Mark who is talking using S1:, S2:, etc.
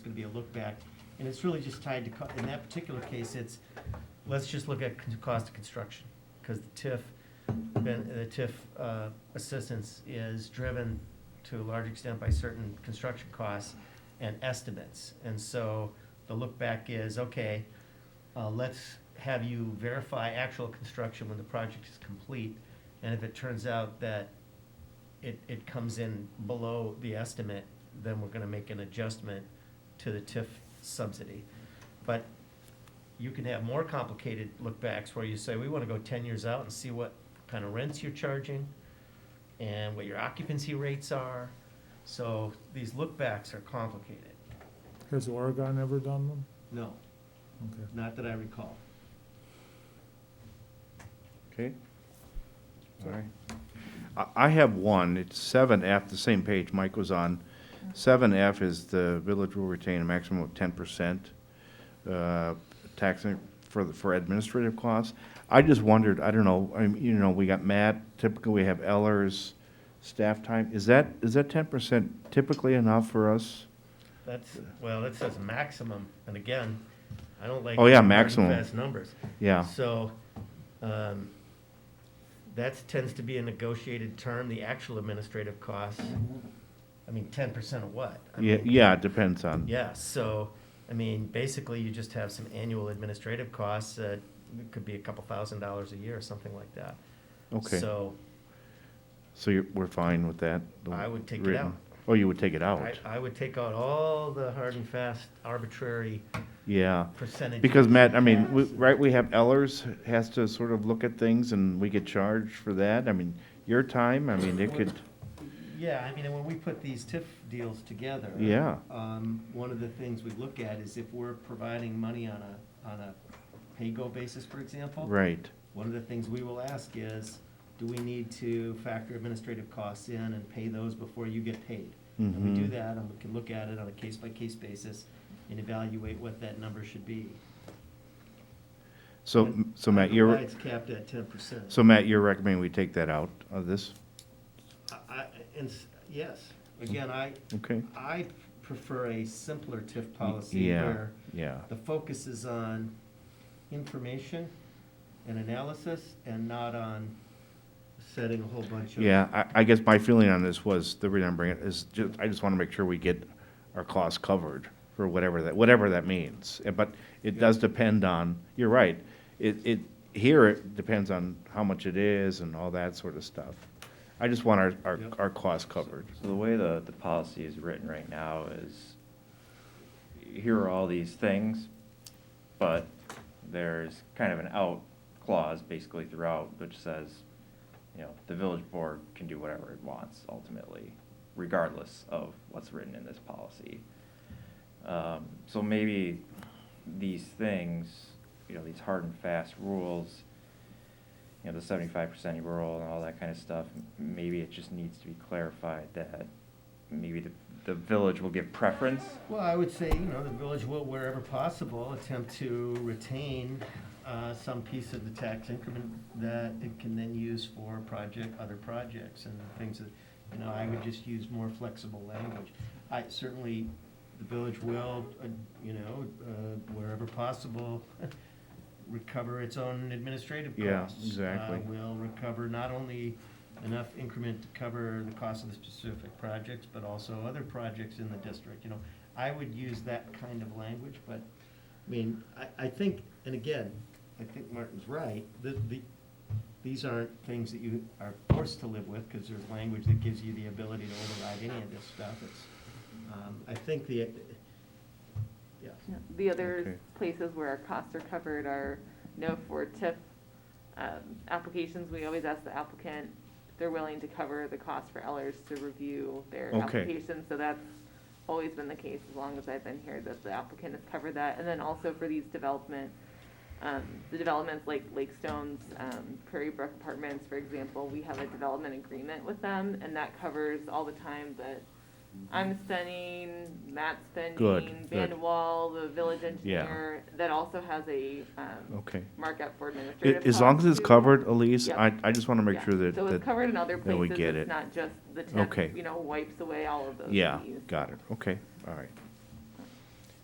S1: be a look back. And it's really just tied to, co- in that particular case, it's, let's just look at con- cost of construction. Because the TIF, ben- the TIF uh, assistance is driven to a large extent by certain construction costs and estimates. And so the look back is, okay, uh, let's have you verify actual construction when the project is complete. And if it turns out that it, it comes in below the estimate, then we're gonna make an adjustment to the TIF subsidy. But you can have more complicated lookbacks where you say, we wanna go ten years out and see what kind of rents you're charging and what your occupancy rates are. So these lookbacks are complicated.
S2: Has Oregon ever done them?
S1: No,
S2: Okay.
S1: not that I recall.
S3: Okay. All right. I, I have one, it's seven F, the same page Mike was on. Seven F is the village will retain a maximum of ten percent, uh, tax for, the- for administrative costs. I just wondered, I don't know, I, mean, you know, we got Matt, typically we have Ellers, staff time, is that, is that ten percent typically enough for us?
S1: That's, well, that says maximum, and again, I don't like.
S3: Oh, yeah,
S1: hard and
S3: maximum.
S1: Fast numbers.
S3: Yeah,
S1: So, um, that tends to be a negotiated term, the actual administrative costs. I mean, ten percent of what? I
S3: yeah,
S1: mean,
S3: yeah, it depends on.
S1: Yeah, so, I mean, basically, you just have some annual administrative costs that it could be a couple thousand dollars a year, or something like that.
S3: Okay,
S1: So,
S3: so you're, we're fine with that? the
S1: I would take it
S3: written.
S1: out.
S3: Oh, you would take it out?
S1: I, I would take out all the hard and fast arbitrary
S3: Yeah.
S1: percentages.
S3: Because Matt, I mean, we, right, we have Ellers has to sort of look at things and we get charged for that. I mean, your time, I mean, it could,
S1: Yeah, I mean, and when we put these TIF deals together.
S3: Yeah.
S1: Um, one of the things we look at is if we're providing money on a, on a pay-go basis, for example.
S3: right,
S1: One of the things we will ask is, do we need to factor administrative costs in and pay those before you get paid? And we do
S3: Mhm.
S1: that, and we can look at it on a case-by-case basis and evaluate what that number should be.
S3: so,
S1: And
S3: so Matt, you're,
S1: It's capped at ten percent.
S3: so Matt, you're recommending we take that out of this?
S1: I, I- and, s- yes, again, I,
S3: Okay,
S1: I prefer a simpler TIF policy
S3: yeah.
S1: where
S3: yeah,
S1: the focus is on information and analysis and not on setting a whole bunch of.
S3: yeah, I, I guess my feeling on this was, the reason I'm bringing it is just, I just wanna make sure we get our costs covered for whatever that, whatever that means. Uh, But it does depend on, you're right, it, it, here it depends on how much it is and all that sort of stuff. I just want our, our,
S1: Yep.
S3: our costs covered.
S4: So the way the, the policy is written right now is, here are all these things, but there's kind of an out clause basically throughout, which says, you know, the village board can do whatever it wants ultimately, regardless of what's written in this policy. Um, so maybe these things, you know, these hard and fast rules, you know, the seventy-five percent rural and all that kind of stuff, m- maybe it just needs to be clarified that maybe the, the village will give preference.
S1: Well, I would say, you know, the village will, wherever possible, attempt to retain uh, some piece of the tax increment that it can then use for project, other projects and things that, you know, I would just use more flexible language. I certainly, the village will, uh, you know, uh, wherever possible, recover its own administrative
S3: Yeah,
S1: costs.
S3: exactly.
S1: Uh, Will recover not only enough increment to cover the cost of the specific projects, but also other projects in the district, you know. I would use that kind of language, but, I mean, I, I think, and again, I think Martin's right, the, the, these aren't things that you are forced to live with, because there's language that gives you the ability to override any of this stuff, it's, um, I think the, yeah.
S5: Yeah, The
S3: Okay.
S5: other places where our costs are covered are, no, for TIF um, applications, we always ask the applicant, if they're willing to cover the cost for Ellers to review their
S3: Okay.
S5: application. So that's always been the case as long as I've been here, that the applicant has covered that. And then also for these development, um, the developments like Lake Stones, um, Prairie Brook Apartments, for example, we have a development agreement with them, and that covers all the time that I'm spending, Matt's spending,
S3: Good, good.
S5: Van Wall, the village engineer, that also has a, um,
S3: Okay.
S5: markup for administrative
S3: A- As long as
S5: costs,
S3: it's
S5: too.
S3: covered, Elise,
S5: Yeah.
S3: I, I just want to make
S5: Yeah.
S3: sure that,
S5: So it's
S3: that,
S5: covered in other
S3: that we
S5: places,
S3: get it.
S5: it's not just the
S3: Okay.
S5: tip, you know, wipes away all of those fees.
S3: yeah, got it, okay, all right.